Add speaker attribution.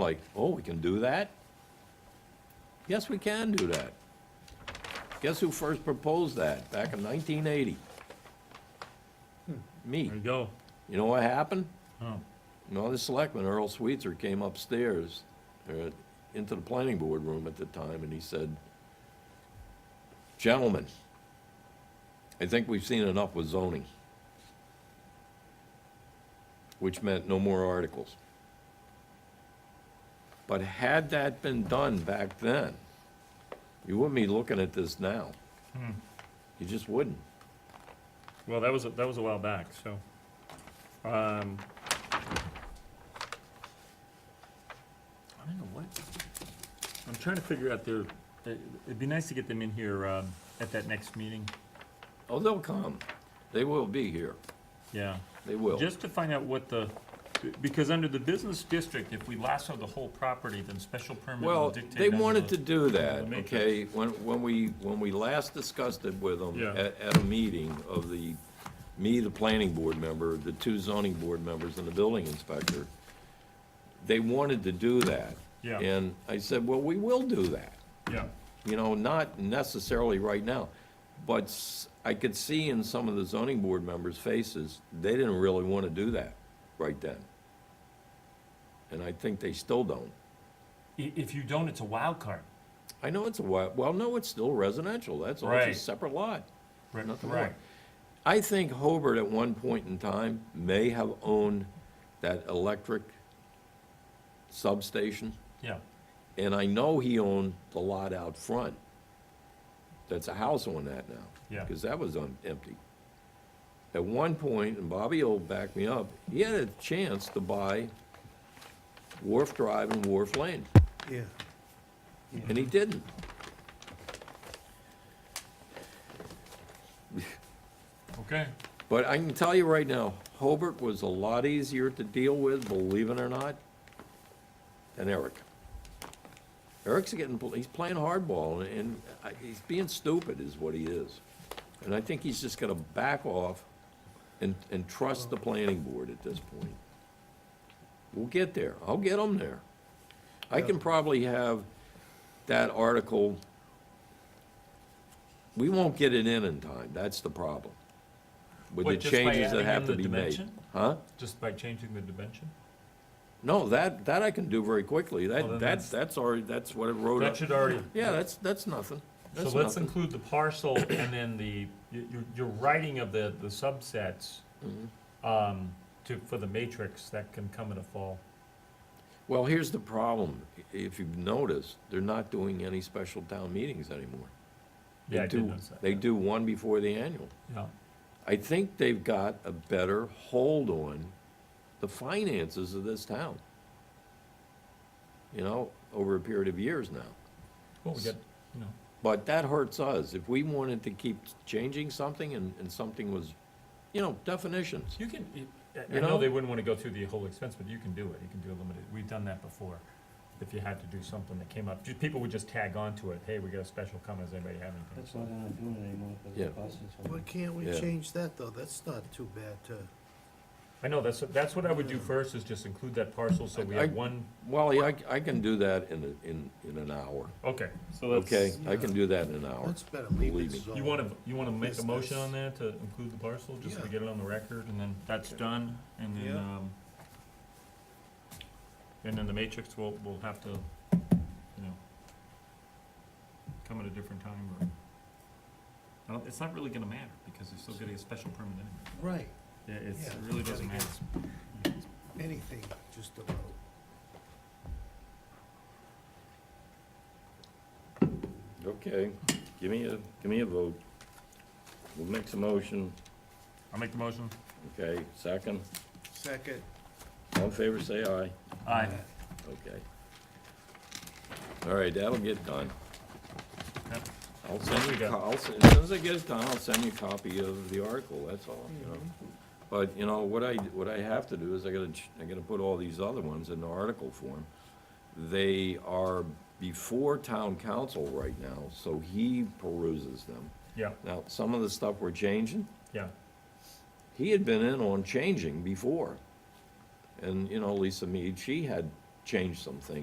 Speaker 1: like, oh, we can do that? Yes, we can do that. Guess who first proposed that, back in nineteen eighty? Me.
Speaker 2: There you go.
Speaker 1: You know what happened?
Speaker 2: Oh,
Speaker 1: No, the selectman, Earl Sweetser, came upstairs, uh, into the planning board room at the time, and he said, gentlemen, I think we've seen enough with zoning. Which meant no more articles. But had that been done back then, you wouldn't be looking at this now. You just wouldn't.
Speaker 2: well, that was, a- that was a while back, so. Um, I don't know what, I'm trying to figure out their, it- it'd be nice to get them in here, um, at that next meeting,
Speaker 1: Oh, they'll come. They will be here.
Speaker 2: yeah.
Speaker 1: They will.
Speaker 2: Just to find out what the, because under the business district, if we lasso the whole property, then special permit will
Speaker 1: Well,
Speaker 2: dictate.
Speaker 1: they
Speaker 2: under
Speaker 1: wanted to
Speaker 2: the-
Speaker 1: do
Speaker 2: the
Speaker 1: that,
Speaker 2: matrix.
Speaker 1: okay? When, when we, when we last discussed it with them
Speaker 2: Yeah.
Speaker 1: at, at a meeting of the, me, the planning board member, the two zoning board members and the building inspector, they wanted to do that.
Speaker 2: Yeah.
Speaker 1: And I said, well, we will do that,
Speaker 2: Yeah,
Speaker 1: you know, not necessarily right now. But s- I could see in some of the zoning board members' faces, they didn't really want to do that right then. And I think they still don't.
Speaker 2: I- if you don't, it's a wild card.
Speaker 1: I know it's a wild, well, no, it's still residential, that's all,
Speaker 2: Right.
Speaker 1: it's a separate lot,
Speaker 2: Right,
Speaker 1: nothing
Speaker 2: right.
Speaker 1: more. I think Hobart at one point in time may have owned that electric substation,
Speaker 2: Yeah,
Speaker 1: and I know he owned the lot out front. That's a house on that now.
Speaker 2: Yeah.
Speaker 1: Because that was un- empty. At one point, and Bobby will back me up, he had a chance to buy Wharf Drive and Wharf Lane.
Speaker 3: Yeah,
Speaker 1: And he didn't.
Speaker 2: okay,
Speaker 1: But I can tell you right now, Hobart was a lot easier to deal with, believe it or not, than Eric. Eric's getting, he's playing hardball, and I- he's being stupid is what he is. And I think he's just gonna back off and, and trust the planning board at this point. We'll get there. I'll get them there. I can probably have that article. We won't get it in in time. That's the problem. With the
Speaker 2: What, just by
Speaker 1: changes that
Speaker 2: adding
Speaker 1: have
Speaker 2: in
Speaker 1: to
Speaker 2: the
Speaker 1: be made.
Speaker 2: dimension?
Speaker 1: Huh?
Speaker 2: just by changing the dimension?
Speaker 1: No, that, that I can do very quickly.
Speaker 2: Well,
Speaker 1: That,
Speaker 2: then
Speaker 1: that's,
Speaker 2: that's-
Speaker 1: that's already, that's what it wrote
Speaker 2: That
Speaker 1: up.
Speaker 2: should already,
Speaker 1: Yeah, that's, that's nothing.
Speaker 2: so
Speaker 1: That's
Speaker 2: let's
Speaker 1: nothing.
Speaker 2: include the parcel and then the, y- your, your writing of the, the subsets,
Speaker 1: Mm-hmm.
Speaker 2: um, to, for the matrix, that can come in a fall.
Speaker 1: Well, here's the problem. If you've noticed, they're not doing any special town meetings anymore. They
Speaker 2: Yeah, I
Speaker 1: do-
Speaker 2: did notice that.
Speaker 1: They do one before the annual.
Speaker 2: Yeah,
Speaker 1: I think they've got a better hold on the finances of this town. You know, over a period of years now.
Speaker 2: well, we got, you know,
Speaker 1: But that hurts us. If we wanted to keep changing something and, and something was, you know, definitions.
Speaker 2: you can, you- I- I
Speaker 1: You
Speaker 2: know
Speaker 1: know?
Speaker 2: they wouldn't wanna go through the whole expense, but you can do it, you can do a limited, we've done that before. If you had to do something that came up, ju- people would just tag on to it, hey, we got a special coming, does anybody have anything?
Speaker 4: That's why they're not doing it anymore, because
Speaker 1: Yeah.
Speaker 4: it costs us
Speaker 3: why
Speaker 4: money.
Speaker 3: can't we
Speaker 1: Yeah.
Speaker 3: change that, though? That's not too bad to,
Speaker 2: I know, that's, that's what I would do first, is just include that parcel, so we
Speaker 1: I-
Speaker 2: have one,
Speaker 1: Wally, I, I can do that in, a- in, in an hour,
Speaker 2: okay, so let's.
Speaker 1: okay? I can do that in an hour.
Speaker 3: that's better, leave
Speaker 1: Oh, Believe
Speaker 3: it
Speaker 1: me.
Speaker 3: zone.
Speaker 2: You wanna, you wanna make a
Speaker 3: Yes,
Speaker 2: motion
Speaker 3: that's-
Speaker 2: on that to include the parcel, just so we
Speaker 3: Yeah.
Speaker 2: get it on the record, and then that's done, and then,
Speaker 3: Yeah.
Speaker 2: um, and then the matrix will, will have to, you know, come at a different time, or, I don't- it's not really gonna matter, because they're still getting a special permit anyway.
Speaker 3: Right,
Speaker 2: Yeah, it's, it
Speaker 3: Yeah.
Speaker 2: really doesn't matter.
Speaker 3: anything, just about.
Speaker 1: Okay, give me a, give me a vote. We'll make some motion,
Speaker 2: I'll make the motion.
Speaker 1: okay? Second,
Speaker 3: Second.
Speaker 1: all in favor, say aye.
Speaker 2: Aye.
Speaker 1: Okay. All right, that'll get done.
Speaker 2: Yep.
Speaker 1: I'll send you, a
Speaker 2: There we go.
Speaker 1: co- I'll, s- as soon as I get it done, I'll send you a copy of the article, that's all, you know?
Speaker 2: Mm-hmm.
Speaker 1: But, you know, what I, what I have to do is I gotta, ch- I gotta put all these other ones in article form. They are before town council right now, so he peruses them.
Speaker 2: Yeah,
Speaker 1: Now, some of the stuff we're changing,
Speaker 2: yeah,
Speaker 1: he had been in on changing before. And, you know, Lisa Mead, she had change some things.